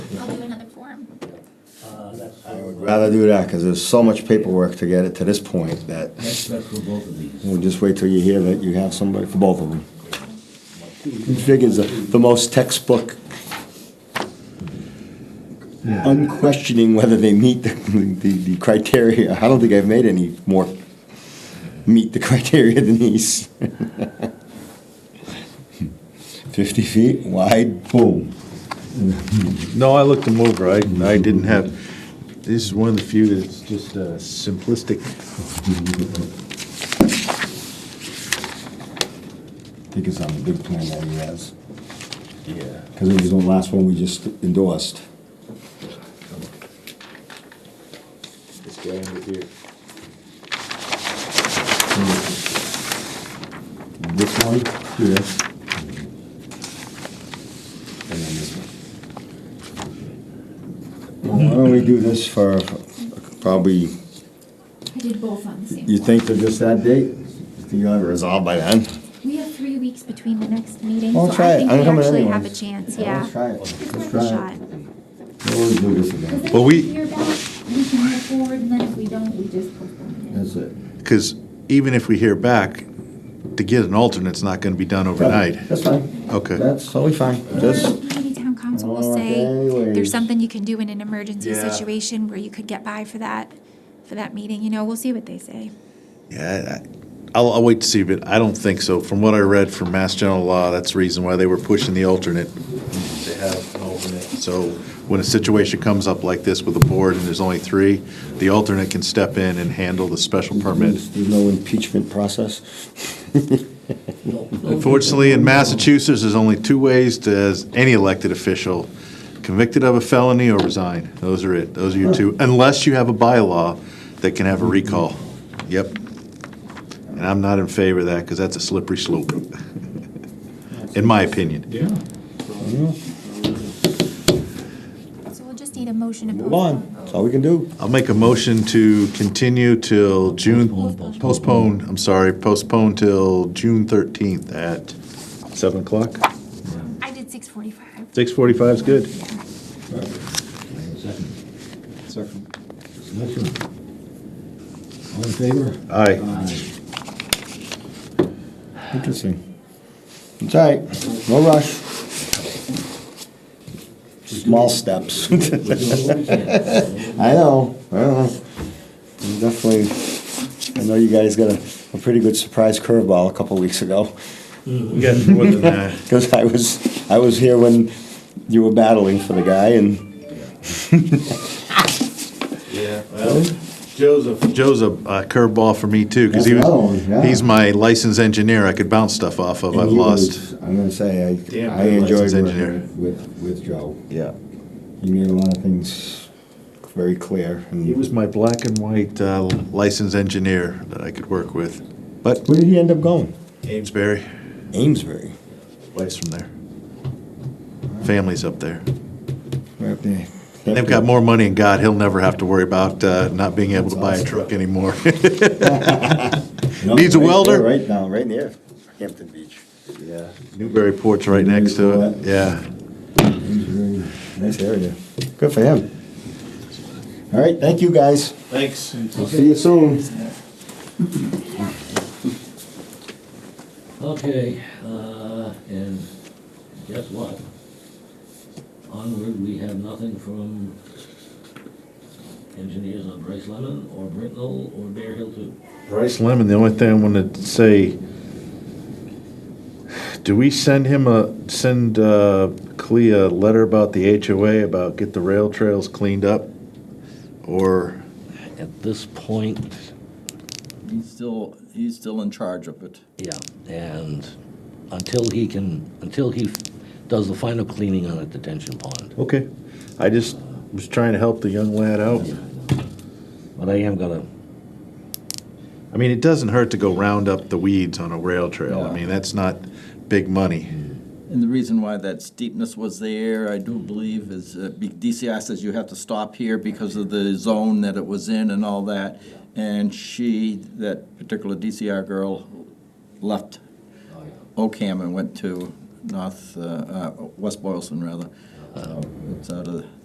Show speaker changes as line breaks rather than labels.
No, that's, I
I would
would,
rather do that, because there's so much paperwork to get it to this point that
That's that's for both of these.
we'll just wait till you hear that you have somebody for both of them. He figures the- the most textbook, unquestioning whether they meet the, the the criteria. I don't think I've made any more meet the criteria than these. Fifty feet wide, boom.
No, I looked them over, I, I didn't have, this is one of the few that's just uh, simplistic.
I think it's on the big plan that he has,
Yeah.
because it was the last one we just endorsed.
This guy under here.
This one? Yes. And then this one. Why don't we do this for probably,
I did both on the same.
you think they're just that date? You think you'll have it resolved by then?
We have three weeks between the next meeting,
I'll
so
try it.
I think
I'm
we
coming
actually have a
anyways.
chance,
Yeah,
yeah.
let's try it.
It's
Let's
worth
try
a
it.
shot.
We'll do this
Because
again.
then
Well,
if
we-
hear back, we can move forward, and then if we don't, we just postpone
That's it.
Because even if we hear back, to get an alternate's not gonna be done overnight.
That's fine.
Okay.
That's totally fine.
it.
Just,
Or Maybe town council
Oh,
will say,
anyways.
there's something you can do in an emergency
Yeah.
situation where you could get by for that, for that meeting, you know, we'll see what they say.
Yeah, I- I- I'll, I'll wait to see, but I don't think so. From what I read from Mass General Law, that's the reason why they were pushing the alternate. They have an alternate. So when a situation comes up like this with a board and there's only three, the alternate can step in and handle the special permit.
there's no impeachment process.
Unfortunately, in Massachusetts, there's only two ways to, as any elected official, convicted of a felony or resign. Those are it. Those are your two, unless you have a bylaw that can have a recall. Yep. And I'm not in favor of that, because that's a slippery slope, in my opinion.
Yeah.
So we'll just need a motion to
Move on.
postpone.
That's all we can do.
I'll make a motion to continue till June,
Postpone.
postpone, I'm sorry, postpone till June 13th at 7 o'clock.
I did six forty-five.
6:45 is good.
Second. Discussion. All in favor?
Aye.
Interesting. It's all right. No rush. Small steps.
We're doing what we can.
I know, I know. I'm definitely, I know you guys got a, a pretty good surprise curveball a couple weeks ago.
We got more than that.
Because I was, I was here when you were battling for the guy and
Yeah, well, Joe's a. Joe's a uh, curveball for me too, because he
That's another one, yeah.
was, he's my licensed engineer, I could bounce stuff off of,
and
I've
you
lost.
was- I'm gonna say, I,
Damn
I
good
enjoyed
license engineer.
working with, with Joe.
Yeah.
You made a lot of things very clear. and-
He was my black and white uh, licensed engineer that I could work with, but
Where did he end up going?
Amesbury,
Amesbury.
wife's from there. Family's up there.
Right up there.
They've got more money in God, he'll never have to worry about uh, not being able to buy a truck anymore.
No,
Needs a
right
welder?
there, Right now, right near Hampton Beach.
Yeah. Newbury Port's right next to it, yeah.
Amesbury, Nice area. Good for him. All right, thank you, guys.
Thanks.
We'll see you soon.
Okay, uh, and guess what? Onward, we have nothing from engineers on Bryce Lemon or Brittenell or Bear Hill Two.
Bryce Lemon, the only thing I want to say, do we send him a, send uh, Clea a letter about the HOA, about get the rail trails cleaned up? Or,
At this point,
He's still, he's still in charge of it.
yeah, and until he can, until he f- does the final cleaning on a detention pond.
okay, I just was trying to help the young lad out.
But I am gonna,
I mean, it doesn't hurt to go round up the weeds on a rail trail. I
Yeah.
mean, that's not big money.
And the reason why that steepness was there, I do believe, is uh, be- DCI says you have to stop here because of the zone that it was in and all that. And she, that particular DCI girl, left Ocam and went to North, uh, uh, West Boylston, rather. So It's out of